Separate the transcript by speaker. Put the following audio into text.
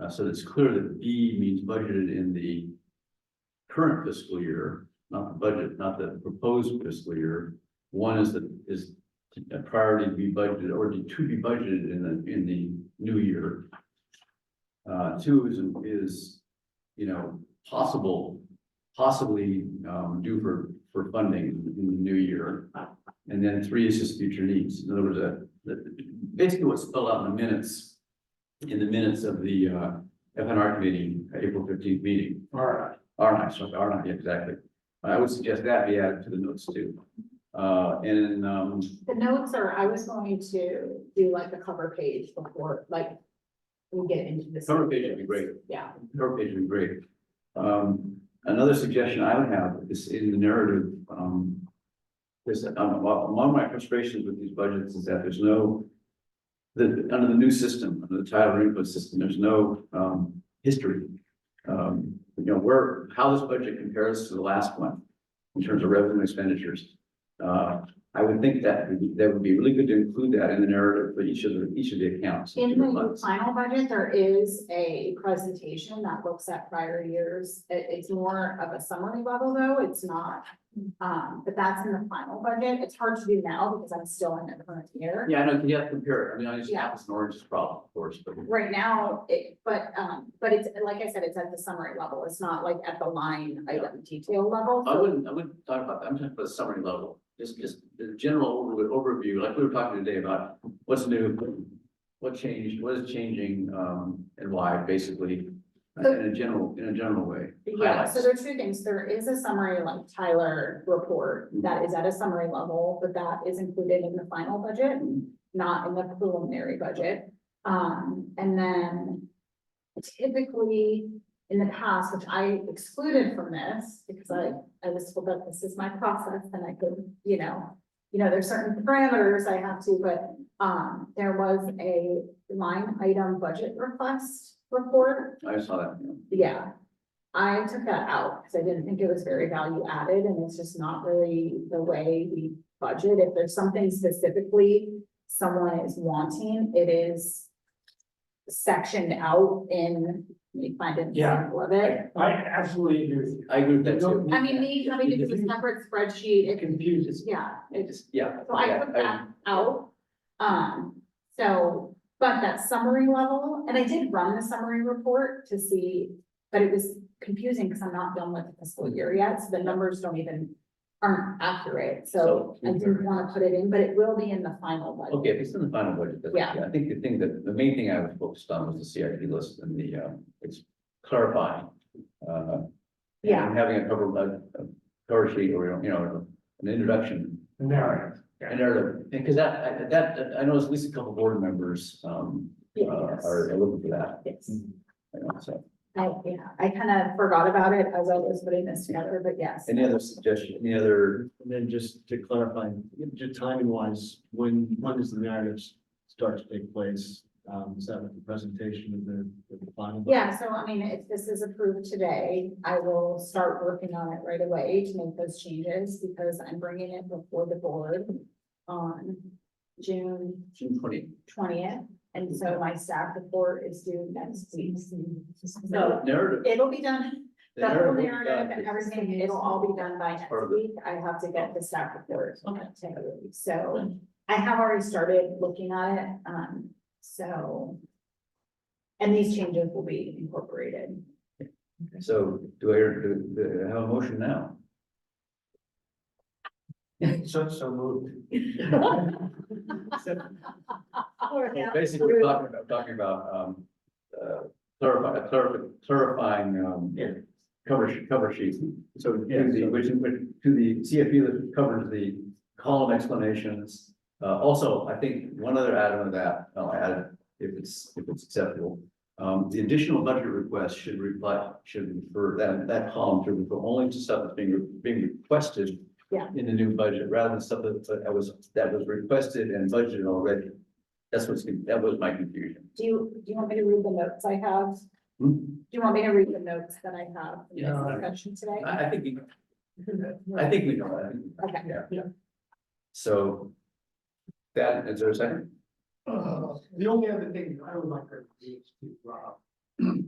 Speaker 1: Uh, so it's clear that B means budgeted in the current fiscal year, not the budget, not the proposed fiscal year. One is the, is a priority to be budgeted or to be budgeted in the, in the new year. Uh, two is, is, you know, possible, possibly, um, due for, for funding in the new year. And then three is just future needs. In other words, uh, the- basically what's spelled out in the minutes, in the minutes of the, uh, F N R committee, uh, April fifteenth meeting.
Speaker 2: Alright.
Speaker 1: R nine, sorry, R nine, yeah, exactly. I would suggest that be added to the notes too. Uh, and, um,
Speaker 3: The notes are, I was going to do like a cover page before, like, we get into this.
Speaker 1: Cover page would be great.
Speaker 3: Yeah,
Speaker 1: her page would be great. Um, another suggestion I would have is in the narrative, um. Is, um, well, one of my frustrations with these budgets is that there's no. The, under the new system, under the title input system, there's no, um, history. Um, you know, where, how this budget compares to the last one in terms of revenue expenditures. Uh, I would think that would be, that would be really good to include that in the narrative for each of the, each of the accounts. each
Speaker 3: in
Speaker 1: of the
Speaker 3: the
Speaker 1: funds.
Speaker 3: final budget, there is a presentation that looks at prior years. It- it's more of a summary level though, it's not, um, but that's in the final budget. It's hard to do now because I'm still in the current year.
Speaker 1: Yeah, I know, you have to compare it, I mean, I just
Speaker 3: Yeah.
Speaker 1: have this orange problem, of course, but.
Speaker 3: Right now, it, but, um, but it's, like I said, it's at the summary level. It's not like at the line item detail level.
Speaker 1: I
Speaker 3: So
Speaker 1: wouldn't, I wouldn't talk about that, I'm talking about the summary level, just, just the general over- overview, like we were talking today about what's new, what changed, what is changing, um, and why, basically, in a general, in a general way.
Speaker 3: Yeah, so
Speaker 1: Highlights.
Speaker 3: there are two things. There is a summary like Tyler report that is at a summary level, but that is included in the final budget, not in the preliminary budget. Um, and then typically in the past, which I excluded from this because I, I was told that this is my process and I could, you know, you know, there's certain parameters I have to, but, um, there was a line item budget request report
Speaker 1: I saw that, you know.
Speaker 3: yeah. I took that out because I didn't think it was very value added and it's just not really the way we budget. If there's something specifically someone is wanting, it is sectioned out in, let me find an
Speaker 2: Yeah.
Speaker 3: example of it.
Speaker 2: I absolutely agree with you.
Speaker 1: I agree with that too.
Speaker 2: Don't-
Speaker 3: I mean, me having to do a separate spreadsheet,
Speaker 2: It
Speaker 3: it,
Speaker 2: confuses.
Speaker 3: yeah,
Speaker 1: I just, yeah.
Speaker 3: so I
Speaker 1: yeah,
Speaker 3: took that out. Um, so, but that summary level, and I did run the summary report to see, but it was confusing because I'm not done with the fiscal year yet, so the numbers don't even aren't accurate, so
Speaker 1: So-
Speaker 3: I didn't want to put it in, but it will be in the final budget.
Speaker 1: Okay, if it's in the final budget, that's,
Speaker 3: Yeah.
Speaker 1: yeah, I think the thing that, the main thing I was focused on was the CIP list and the, um, it's clarifying. uh,
Speaker 3: Yeah.
Speaker 1: And having a cover, a a cover sheet or, you know, an introduction
Speaker 2: The narrative.
Speaker 1: And are, because that, I- that, I know at least a couple board members, um, uh, are looking for that,
Speaker 3: Yes.
Speaker 1: you know, so.
Speaker 3: I, yeah, I kind of forgot about it as I was putting this together, but yes.
Speaker 1: Any other suggestion, any other,
Speaker 4: And then just to clarify, just timing wise, when, when does the narrative start to take place? Um, is that with the presentation of the, of the final?
Speaker 3: Yeah, so I mean, if this is approved today, I will start working on it right away to make those changes because I'm bringing it before the board on June
Speaker 1: June twenty?
Speaker 3: twentieth. And so my staff report is due next week. So
Speaker 1: Narrative.
Speaker 3: it'll be done,
Speaker 1: the
Speaker 3: the whole
Speaker 1: narrative is
Speaker 3: narrative
Speaker 1: done.
Speaker 3: and everything, it'll all be done by
Speaker 1: Part
Speaker 3: next
Speaker 1: of it.
Speaker 3: week. I have to get the staff report.
Speaker 1: Okay.
Speaker 3: together. So I have already started looking at it, um, so. And these changes will be incorporated.
Speaker 1: So do I, do, do I have a motion now?
Speaker 2: So, so moved.
Speaker 1: Well, Basically, we're talking about, talking about, um, uh, clarifying, clarifying, um,
Speaker 4: Yeah.
Speaker 1: cover, she- cover sheets.
Speaker 4: So, yeah,
Speaker 1: to the,
Speaker 4: so-
Speaker 1: which, which, to the CFP that covers the column explanations. Uh, also, I think one other add-on to that, I'll add, if it's, if it's acceptable. Um, the additional budget request should reply, should refer, that, that column should refer only to stuff that's being, being requested.
Speaker 3: Yeah.
Speaker 1: In the new budget, rather than stuff that, that was, that was requested and budgeted already. That's what's, that was my confusion.
Speaker 3: Do you, do you want me to read the notes I have?
Speaker 1: Hmm?
Speaker 3: Do you want me to read the notes that I have in
Speaker 1: Yeah.
Speaker 3: this discussion today?
Speaker 1: I, I think, you- I think we know that.
Speaker 3: Okay.
Speaker 1: Yeah.
Speaker 2: Yeah.
Speaker 1: So. That, is there a second?
Speaker 2: Uh, The only other thing I would like to read to Rob
Speaker 1: All